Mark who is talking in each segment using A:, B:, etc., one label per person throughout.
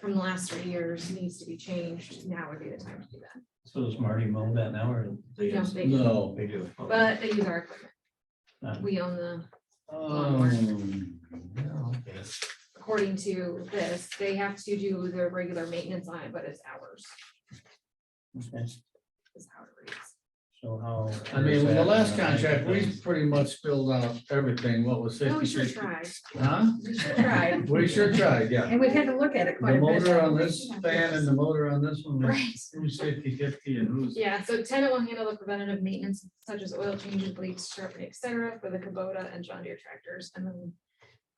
A: from the last three years needs to be changed, now would be the time to do that.
B: So does Marty mow that now or they
A: No,
B: just?
A: they-
C: No.
B: They do. okay.
A: But they use our equipment.
B: Uh.
A: We own the,
C: Oh, yeah, okay.
A: according to this, they have to do their regular maintenance on it, but it's ours,
B: Okay.
A: is how it reads.
B: So how?
C: I mean, with the last contract, we pretty much spilled out everything, what was
A: No,
C: fifty?
A: we sure tried,
C: Huh?
A: we sure tried,
C: We sure tried, yeah.
D: And we've had to look at it
C: The
D: quite a bit.
C: motor on this fan and the motor on this one, was-
A: right?
C: who's fifty fifty and who's?
A: Yeah, so tenant will handle the preventative maintenance such as oil changes, bleach, sharpening, et cetera, for the Kubota and John Deere tractors, and then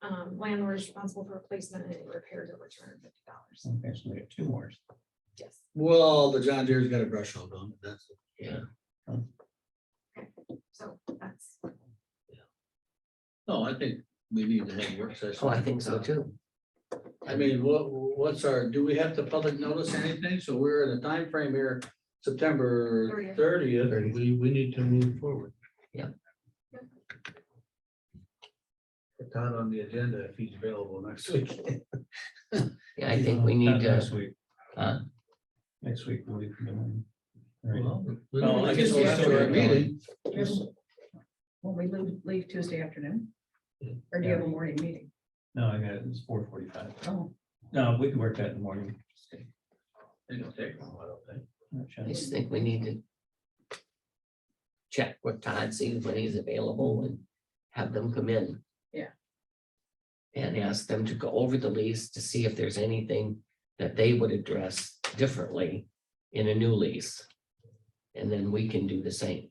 A: um, landlord is responsible for replacement and any repairs over two hundred and fifty dollars.
B: Okay, so we have two more.
A: Yes.
C: Well, the John Deere's got a brush hog on it, that's.
A: So that's,
C: No, Oh, I think we need to have work session.
E: Oh, I think so too.
C: I mean, what, what's our, do we have to public notice anything? So we're in a time frame here, September
A: Thirtieth.
C: thirtieth, and we, we need to move forward.
E: Yeah.
C: Put Todd on the agenda if he's available next week.
E: Yeah, I think we
B: Not
E: need to,
B: Next week,
E: uh,
B: next week, the week. from then. Right.
C: Well, we
B: Well,
C: don't
B: I
C: have
B: guess
C: to um,
B: we'll
C: go
B: still
C: after our
B: get going.
C: meeting.
D: Will we leave, leave Tuesday afternoon? Or do you have a morning meeting?
B: No, I got it, it's four forty-five.
D: Oh,
B: No, we can work that in the morning.
C: It'll take a while, I think.
E: I just think we need to check with Todd, see when he's available and have them come in.
D: Yeah.
E: And ask them to go over the lease to see if there's anything that they would address differently in a new lease. And then we can do the same.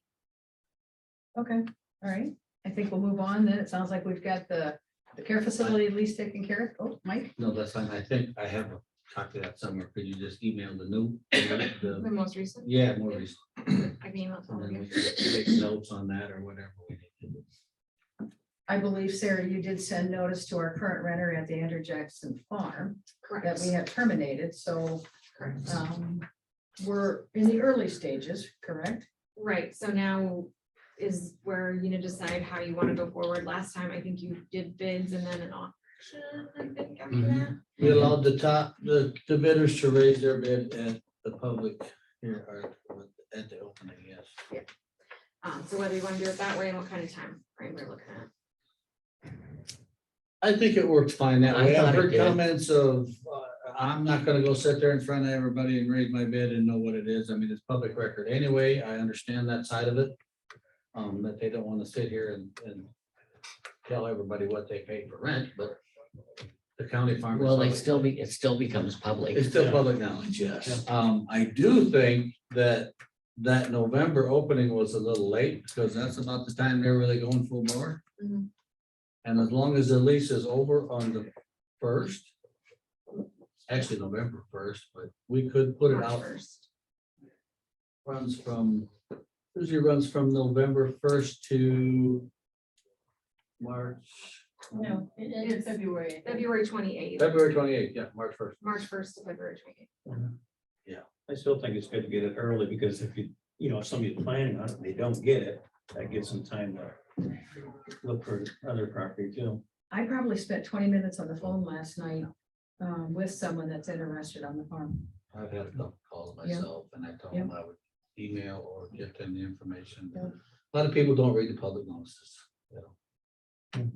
D: okay, all right. I think we'll move on then. It sounds like we've got the, the care facility at least taken care of. Oh, Mike?
C: No, that's fine. I think I have a copy of that somewhere. Could you just email the new? the-
A: the most recent,
C: Yeah, more recent.
A: I mean, that's all
C: And
A: we
C: then
A: get.
C: we can take notes on that or whatever we need to do.
D: I believe, Sarah, you did send notice to our current renter at the Andrew Jackson Farm that
A: correct,
D: we have terminated, so
A: correct.
D: um, we're in the early stages, correct?
A: Right, so now is where you need to decide how you want to go forward. Last time, I think you did bids and then an auction, I think after
E: Mhm.
C: Mm-hmm.
A: that.
C: We allowed the top, the, the bidders to raise their bid at the public here or at the opening, yes.
A: Um, so whether you want to do it that way and what kind of time frame we're looking at.
C: I think it worked fine that
E: I
C: way. I've
E: thought it
C: heard
E: did.
C: comments of, uh, I'm not gonna go sit there in front of everybody and raise my bid and know what it is. I mean, it's public record anyway. I understand that side of it. Um, that they don't wanna sit here and, and tell everybody what they paid for rent, but the county farm. is
E: Well, they
C: public.
E: still be, it still becomes public.
C: It's still public knowledge, yes. Um, I do think that that November opening was a little late because that's about the time they're really going full bore.
A: Mhm.
C: And as long as the lease is over on the first, actually November first, but we could put it
A: March
C: out,
A: first.
C: runs from, usually runs from November first to March,
D: No, it's February.
A: February twenty-eighth,
C: February twenty-eighth, yeah, March first.
A: March first to February twenty-eighth.
B: I still think it's good to get it early because if you, you know, if somebody's planning on it, and they don't get it, that gives them time to look for other property too.
D: I probably spent twenty minutes on the phone last night um, with someone that's interested on the farm.
C: I've had a couple calls
D: Yeah.
C: myself and I told
D: Yeah.
C: them I would email or get them the information.
D: Yeah.
C: A lot of people don't read the public notices. you know.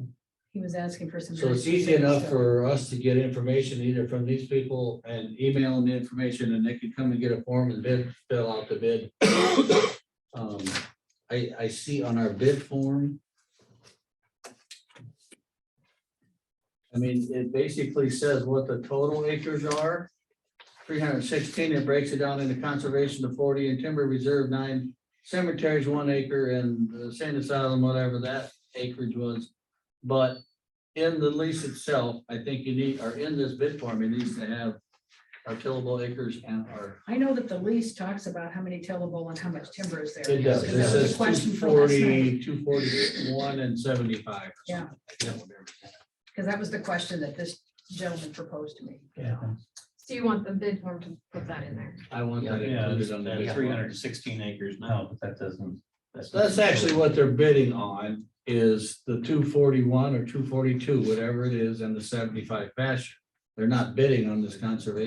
D: He was asking for some.
C: So it's
D: very
C: easy
D: specific
C: enough
D: stuff.
C: for us to get information either from these people and email them the information and they could come and get a form and bid, fill out the bid. Um, I, I see on our bid form. I mean, it basically says what the total acres are. Three hundred and sixteen, it breaks it down into conservation of forty and timber reserve nine, cemeteries one acre and the sand asylum, whatever that acreage was. But in the lease itself, I think you need, or in this bid form, it needs to have our tillable acres and our.
D: I know that the lease talks about how many tillable and how much timber is there.
C: It does.
D: That
C: It
D: was
C: says
D: a question
C: 240,
D: for last night,
C: 241, and seventy-five. or
D: Yeah.
C: something. I can't remember.
D: Because that was the question that this gentleman proposed to me.
B: Yeah.
A: So you want the bid form to put that in there?
C: I want that
B: Yeah,
C: included on the
B: that's
C: bid
B: three
C: form.
B: hundred and sixteen acres now, but that doesn't. not-
C: That's actually what they're bidding on is the two forty-one or two forty-two, whatever it is, and the seventy-five pasture. They're not bidding on this conservation